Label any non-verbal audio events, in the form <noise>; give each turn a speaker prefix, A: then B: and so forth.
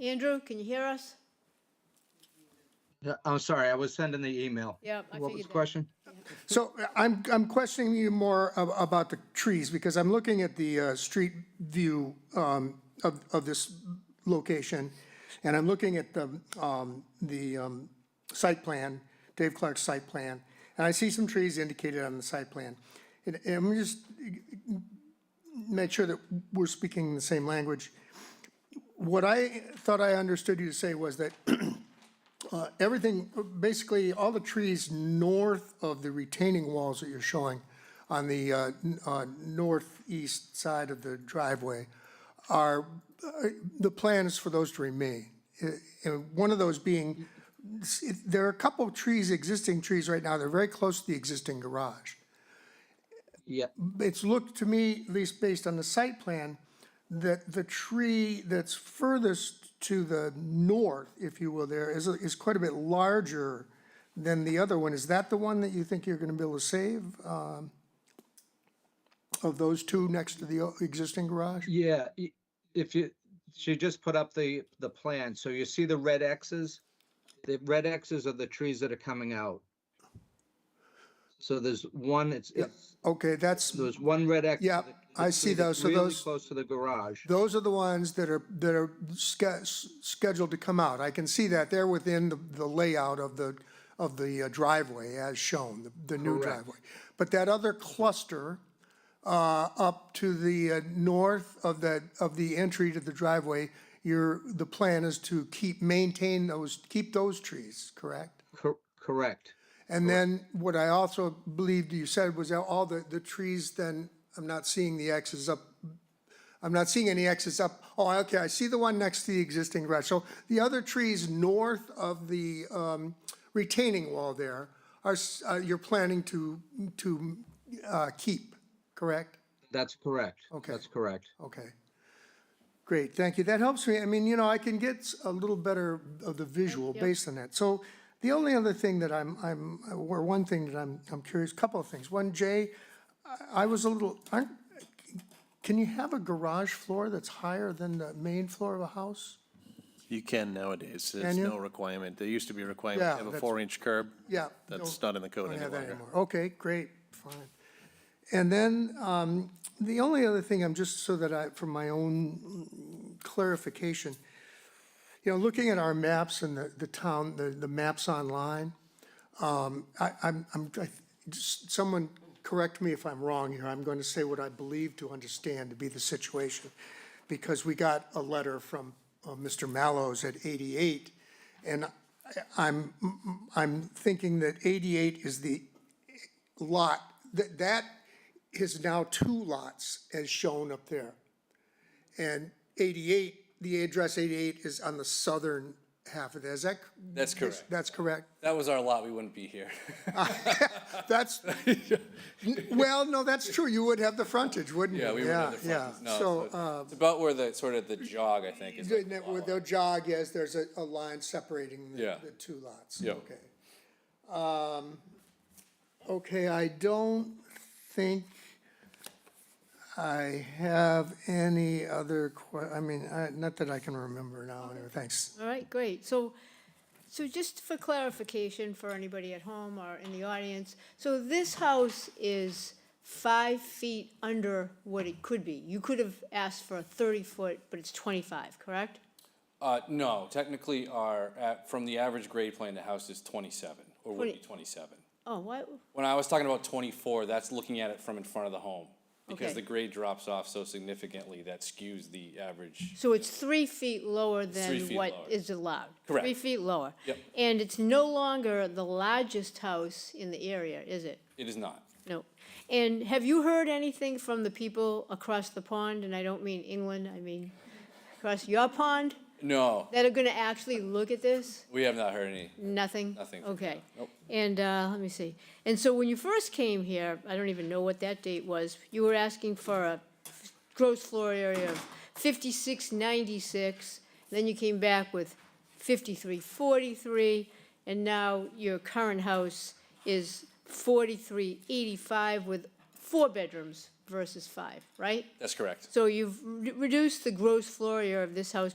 A: Andrew, can you hear us?
B: Yeah, I'm sorry, I was sending the email.
A: Yeah, I
B: What
A: figured
B: was the
A: that.
B: question?
C: So uh, I'm, I'm questioning you more ab- about the trees, because I'm looking at the uh, street view um, of, of this location, and I'm looking at the, um, the um, site plan, Dave Clark's site plan, and I see some trees indicated on the site plan. And and I'm just, make sure that we're speaking the same language. What I thought I understood you to say was that everything, basically, all the trees north of the retaining walls that you're showing on the uh, n- uh, northeast side of the driveway are, uh, the plan is for those to remain. Uh, And one of those being, s- it- there are a couple of trees, existing trees right now, they're very close to the existing garage.
B: Yeah,
C: It's looked to me, at least based on the site plan, that the tree that's furthest to the north, if you will, there is, is quite a bit larger than the other one. Is that the one that you think you're gonna be able to save? um, Of those two next to the o- existing garage?
B: yeah, i- if you, she just put up the, the plan, so you see the red X's? The red X's are the trees that are coming out. So there's one, it's, it's,
C: Okay, that's,
B: there's one red X.
C: Yeah,
B: that-
C: I
B: that's
C: see
B: really-
C: those. So
B: really
C: those-
B: Close to the garage.
C: those are the ones that are, that are sch- scheduled to come out. I can see that they're within the the layout of the, of the uh, driveway as shown, the- the new
B: Correct.
C: driveway. But that other cluster uh, up to the uh, north of the, of the entry to the driveway, your, the plan is to keep, maintain those, keep those trees, correct?
B: Cor- Correct.
C: And then what I also believed you said was that all the, the trees then, I'm not seeing the X's up. I'm not seeing any X's up. Oh, okay, I see the one next to the existing garage. So the other trees north of the um, retaining wall there are, s- uh, you're planning to, to uh, keep, correct?
B: That's correct.
C: Okay.
B: That's correct.
C: Okay. Great, thank you. That helps me. I mean, you know, I can get s- a little better of the visual based on that. So the only other thing that I'm, I'm, or one thing that I'm, I'm curious, couple of things. One, Jay, I- I was a little, aren't, can you have a garage floor that's higher than the main floor of a house?
D: You can nowadays.
C: Can
D: There's
C: you?
D: no requirement. There used to be a requirement
C: Yeah,
D: to have a
C: that's-
D: four-inch curb.
C: Yeah.
D: That's
C: no,
D: not in the code
C: don't
D: any
C: have that
D: longer.
C: anymore. Okay, great, fine. And then, um, the only other thing, I'm just so that I, for my own mm, clarification, you know, looking at our maps and the, the town, the, the maps online, um, I, I'm, I'm, I, just, someone correct me if I'm wrong here, I'm going to say what I believe to understand to be the situation. Because we got a letter from, uh, Mr. Mallows at eighty-eight, and I, I'm, I'm thinking that eighty-eight is the lot, that, that is now two lots as shown up there. And 88, the address 88 is on the southern half of that, is that?
E: That's correct.
C: That's correct?
E: That was our lot, we wouldn't be here. <laughs>
C: That's, well, no, that's true, you would have the frontage, wouldn't you?
E: Yeah, we would have the front.
C: Yeah,
E: No,
C: so,
E: it's-
C: uh,
E: It's about where the, sort of the jog, I think, is. like
C: then
E: the
C: it
E: lot
C: would-
E: line.
C: they'll jog, yes, there's a, a line separating the,
E: Yeah.
C: the two lots,
E: Yeah.
C: okay. Um, okay, I don't think I have any other que, I mean, I, not that I can remember now, anyway, thanks.
A: All right, great. So, so just for clarification for anybody at home or in the audience, so this house is five feet under what it could be. You could have asked for a thirty foot, but it's twenty-five, correct?
E: Uh, no, technically our, a- from the average grade plan, the house is twenty-seven, or would be
A: Twenty-
E: twenty-seven.
A: Oh, what?
E: When I was talking about twenty-four, that's looking at it from in front of the home.
A: Okay.
E: Because the grade drops off so significantly, that skews the average.
A: So it's three feet lower than
E: feet
A: what
E: lower.
A: is allowed?
E: Correct.
A: Three feet lower?
E: Yep.
A: And it's no longer the largest house in the area, is it?
E: It is not.
A: No. And have you heard anything from the people across the pond, and I don't mean England, I mean across your pond,
E: No,
A: that are gonna actually look at this?
E: we have not heard any.
A: Nothing?
E: Nothing from
A: Okay.
E: them, nope.
A: And, uh, let me see. And so when you first came here, I don't even know what that date was, you were asking for a gross floor area of fifty-six ninety-six, then you came back with fifty-three forty-three, and now your current house is forty-three eighty-five with four bedrooms versus five, right?
E: That's correct.
A: So you've re- reduced the gross floor area of this house